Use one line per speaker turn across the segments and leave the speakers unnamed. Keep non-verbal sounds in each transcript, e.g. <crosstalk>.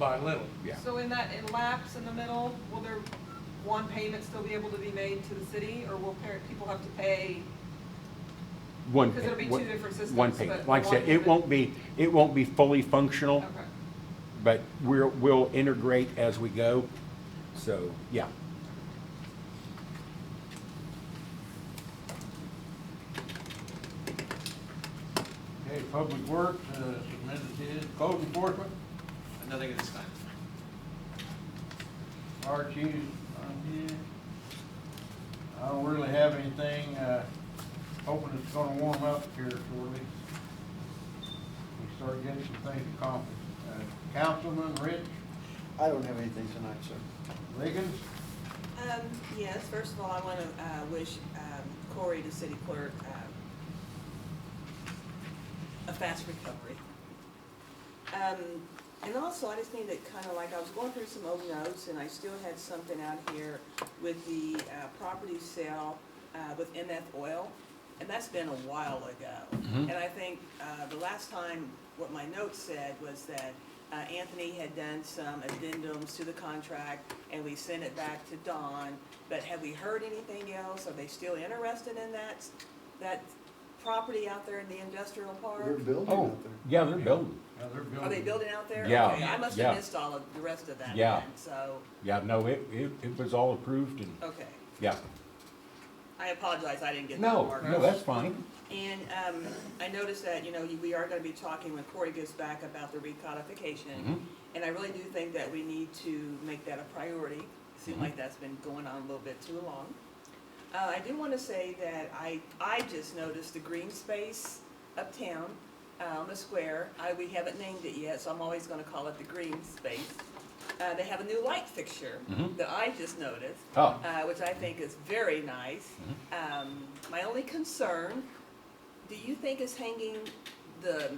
by little, yeah.
So in that, in lapse in the middle, will there, one payment still be able to be made to the city, or will parent, people have to pay?
One.
Because it'll be
pa- one-
two different systems,
One
but
payment.
the
Like I
one
said, it
payment-
won't be, it won't be fully functional,
Okay,
but we're, we'll integrate as we go. So, yeah.
Okay, Public Works, uh, submitted his, code enforcement,
Nothing at this time.
Archie's on here. uh, I don't really have anything, uh, hoping it's gonna warm up here shortly. We start getting some things accomplished. Uh, Councilman Rich
I don't have anything tonight, sir.
Liggins,
Um, yes, first of all, I wanna, uh, wish, um, Corey, the city clerk, um, a fast recovery. Um, and also, I just need to kinda like, I was going through some old notes, and I still had something out here with the, uh, property sale, uh, with MF Oil, and that's been a while ago. And I think, uh, the last time, what my notes said was that, uh, Anthony had done some addendums to the contract, and we sent it back to Don, but have we heard anything else? Are they still interested in that, that property out there in the industrial park?
They're building
Oh,
out there.
yeah, they're building.
now they're building.
Are they building out there?
Yeah,
Okay, I must
yeah.
have missed all of the rest of that
Yeah.
then, so,
Yeah, no, it, it, it was all approved and,
okay.
yeah.
I apologize, I didn't get that
No,
part.
no, that's fine.
And, um, I noticed that, you know, we are gonna be talking when Corey gets back about the recodification.
Mhm.
And I really do think that we need to make that a priority. Seems like that's been going on a little bit too long. Uh, I do wanna say that I, I just noticed the green space uptown, uh, on the square. I, we haven't named it yet, so I'm always gonna call it the green space. Uh, they have a new light fixture
Mhm.
that I just noticed
Oh,
uh, which I think is very nice.
Mm-hmm.
Um, my only concern, do you think is hanging, the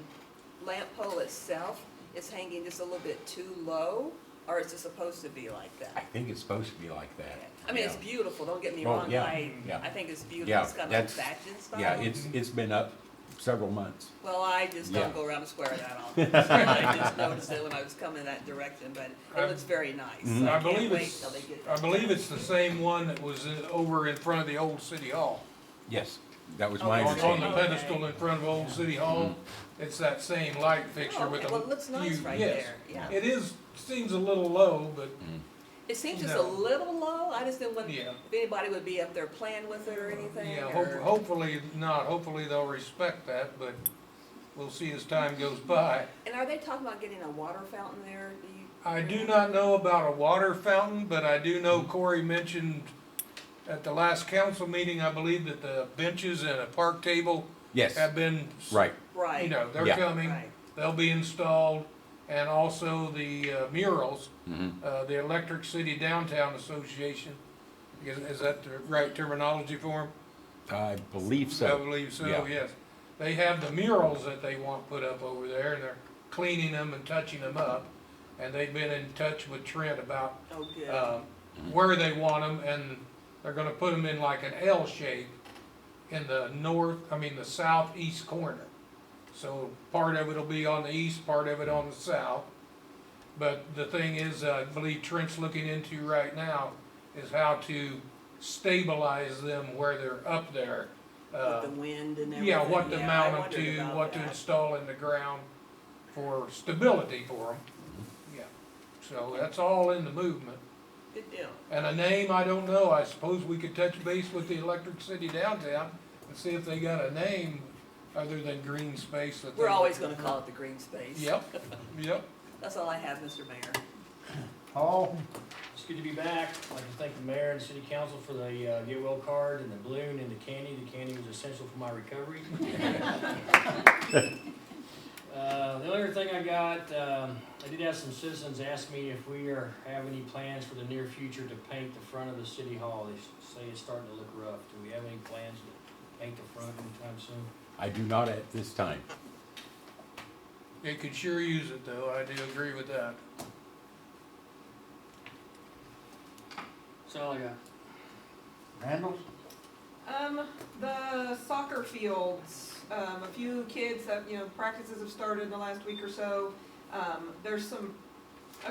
lamp pole itself is hanging just a little bit too low? Or is it supposed to be like
I
that?
think it's supposed to be like that.
I mean, it's
Yeah.
beautiful, don't get me
Oh,
wrong,
yeah,
I,
yeah.
I think it's
Yeah,
beautiful, it's kind of
that's-
fashion style.
Yeah, it's, it's been up several months.
Well, I just
Yeah.
don't go around the square
<laughs>
that often, <laughs> I just noticed it when I was coming that direction, but
I-
it looks very nice.
Mhm.
So
I
I
believe
can't wait
it's-
till they get.
I believe
it's.
it's-
It's the same one that was over in front of the old city hall.
Yes, that was
Oh,
my
it's on the
understanding.
Okay. pedestal in
front of old city hall. It's that same light
Oh, okay, well, it looks nice right there, yeah.
It is, seems a little low, but
It seems just a
No.
little low, I just didn't want, if
Yeah.
anybody would be up there playing with it or anything,
Yeah, hope-
or,
hopefully not, hopefully they'll respect that, but we'll see as time goes by.
and are they talking about getting a water fountain there? Do you-
I do not know about a water fountain, but I do
Hmm.
know Corey mentioned at the last council meeting, I believe, that the benches and a park table
Yes,
have been, s-
right,
Right.
you know, they're
Yeah.
coming,
Right,
they'll be installed, and also the uh, murals,
Mhm.
Mm-hmm.
uh, the Electric City Downtown Association, is, is that the right terminology for them?
I believe
I
so.
believe so,
yeah.
yes. They have the murals that they want put up over there, and they're cleaning them and touching them up. And they've been in touch with Trent about,
oh, good,
um, where they want them, and they're gonna put them in like an L shape in the north, I mean, the southeast corner. So part of it'll be on the east, part of it on the south. But the thing is, I believe Trent's looking into right now is how to stabilize them where they're up there. Uh,
with the wind and everything.
yeah, what to
I
mount them
wondered
to,
about
what to
that.
install in the ground for stability for them. Yeah, so that's all in the movement.
Good deal,
And a name, I don't know, I suppose we could touch base with the Electric City Downtown and see if they got a name other than green space that they.
we're always gonna call it the green space.
Yep, yep.
That's all I have, Mr. Mayor.
Paul,
It's good to be back. I'd like to thank the mayor and city council for the uh, get well card and the balloon and the candy. The candy was essential for my recovery. Uh, The only other thing I got, um, I did have some citizens ask me if we are, have any plans for the near future to paint the front of the city hall. They s- say it's starting to look rough. Do we have any plans to paint the front anytime soon?
I do not at this time.
They could sure use it though, I do agree with that.
That's all I got.
Randall's?
Um, the soccer fields, um, a few kids have, you know, practices have started in the last week or so. Um, there's some
Uh,